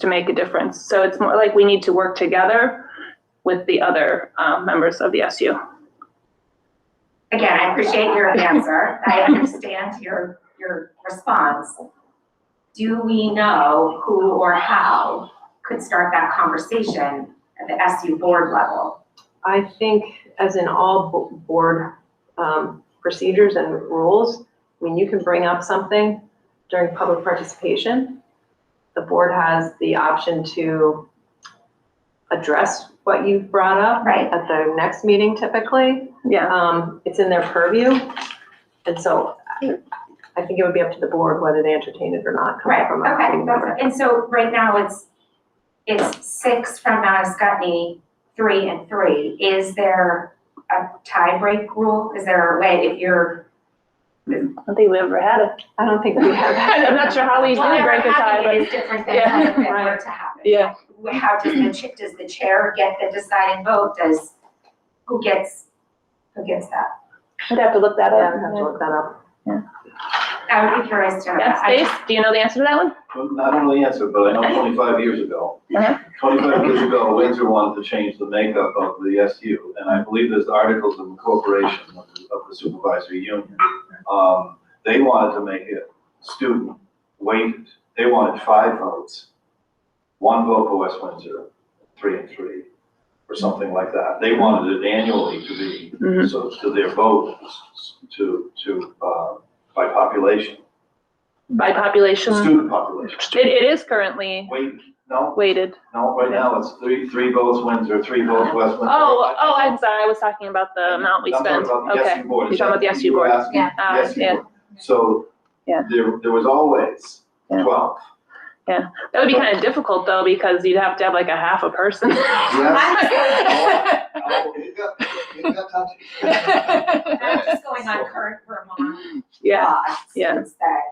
to make a difference. So it's more like we need to work together with the other um, members of the SU. Again, I appreciate your answer. I understand your, your response. Do we know who or how could start that conversation at the SU board level? I think as in all bo- board um, procedures and rules, I mean, you can bring up something during public participation. The board has the option to address what you've brought up Right, at the next meeting typically. Yeah, Um, It's in their purview. And so I- I think it would be up to the board whether they entertain it or not. coming right, from a okay. committee member. that's- And so right now it's, it's six from Mount Scottney, three and three. Is there a tie break rule? Is there a way if you're? I don't think we ever had it. I don't think we have that. I'm not sure how we do Well, break the never tie, happening but is different than Yeah, how it were right. to happen. yeah, how does the, cha- does the chair get the deciding vote? Does, who gets, who gets that? I'd have to look that Yeah, we have to up. look that up. I would be curious to know. Yeah, that. I Stace, do you know the answer to that one? Well, I don't know the answer, but I know twenty-five years ago, Uh-huh. twenty-five years ago, Windsor wanted to change the makeup of the SU. And I believe there's articles of incorporation of the- of the supervisory union. Um, They wanted to make it student weighted. They wanted five votes. One vote for West Windsor, three and three, or something like that. They wanted it annually to be Mhm. so to their vote, to, to, uh, by population, By population, student population. it, it is currently Weighted, no, weighted. no, right now it's three, three votes Windsor, three votes West Windsor. Oh, oh, I'm sorry, I was talking about the amount we I'm talking spent. about the Okay, SU board. You're talking about the SU You were board. asking Yeah. the Ah, SU yeah. board. So Yeah. there, there was always Yeah. twelve. that would be kind of difficult though, because you'd have to have like a half a person. Yes. Oh, it got, it got touchy. I'm just going on current Vermont Yeah, law. yeah. It's that,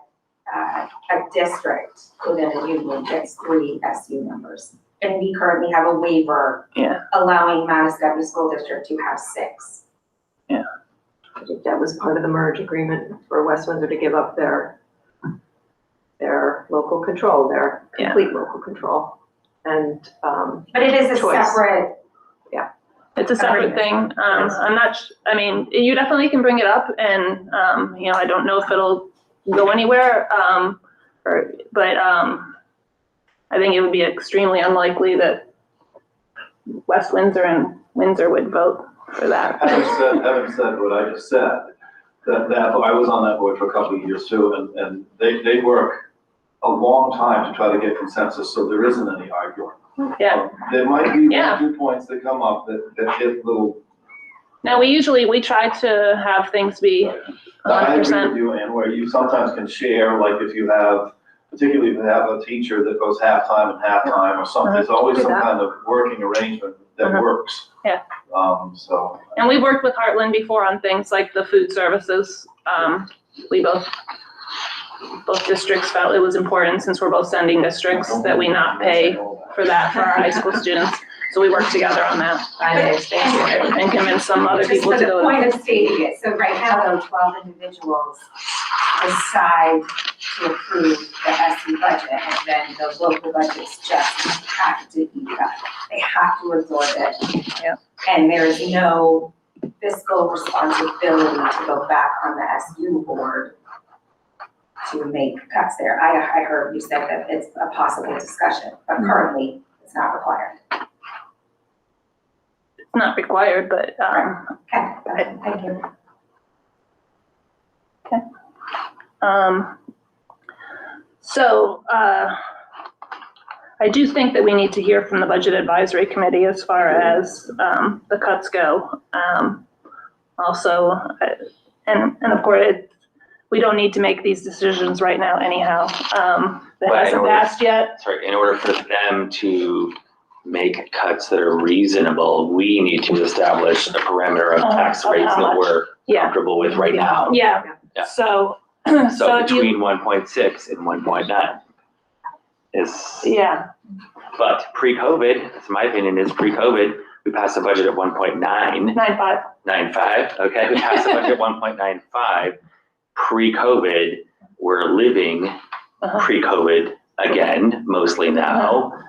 uh, a district within a union gets three SU members. And we currently have a waiver Yeah. allowing Manistee School District to have six. I think that was part of the merge agreement for West Windsor to give up their, their local control, their Yeah. complete local control. And, um, But it is a Choice. separate, it's a separate thing. Um, I'm not, sh- I mean, you definitely can bring it up and, um, you know, I don't know if it'll go anywhere. Um, or, but, um, I think it would be extremely unlikely that West Windsor and Windsor would vote for that. Having said, having said what I just said, that, that, oh, I was on that board for a couple of years too, and, and they, they work a long time to try to get consensus, so there isn't any arguing. Um, Yeah. There might be one, Yeah. or two points that come up that, that hit little, Now, we usually, we try to have things be I hundred agree percent. with you, and where you sometimes can share, like if you have, particularly if you have a teacher that goes halftime and halftime or something, there's always do some that. kind of working arrangement Uh-huh. that works. Yeah. Um, so, And we worked with Heartland before on things like the food services. Um, we both, both districts felt it was important, since we're both sending districts, that we not pay for that for our high school students. So we worked together on that I understand. and convinced some other Just people for to the go. point of stating it, so right now, though, twelve individuals decide to approve the SU budget, and then the local budgets just have to eat that. They have to absorb it. Yeah. And there is no fiscal responsibility to go back on the SU board to make cuts there. I, I heard you said that it's a possible discussion, but currently, it's not required. It's not required, but, um, Okay, thank you. um, so, uh, I do think that we need to hear from the Budget Advisory Committee as far as, um, the cuts go. Um, also, uh, and, and of course, it- we don't need to make these decisions right now anyhow. Um, that Right, hasn't or- passed yet. sorry, in order for them to make cuts that are reasonable, we need to establish a parameter of Uh, tax of rates how that much? we're Yeah. comfortable with right now. Yeah, Yeah. so, so So if you, between one point six and one point nine is, yeah, but pre-COVID, that's my opinion, is pre-COVID, we passed a budget at one point nine nine five, nine five, okay, we passed a budget one point nine five. Pre-COVID, we're living Uh-huh. pre-COVID again, mostly now.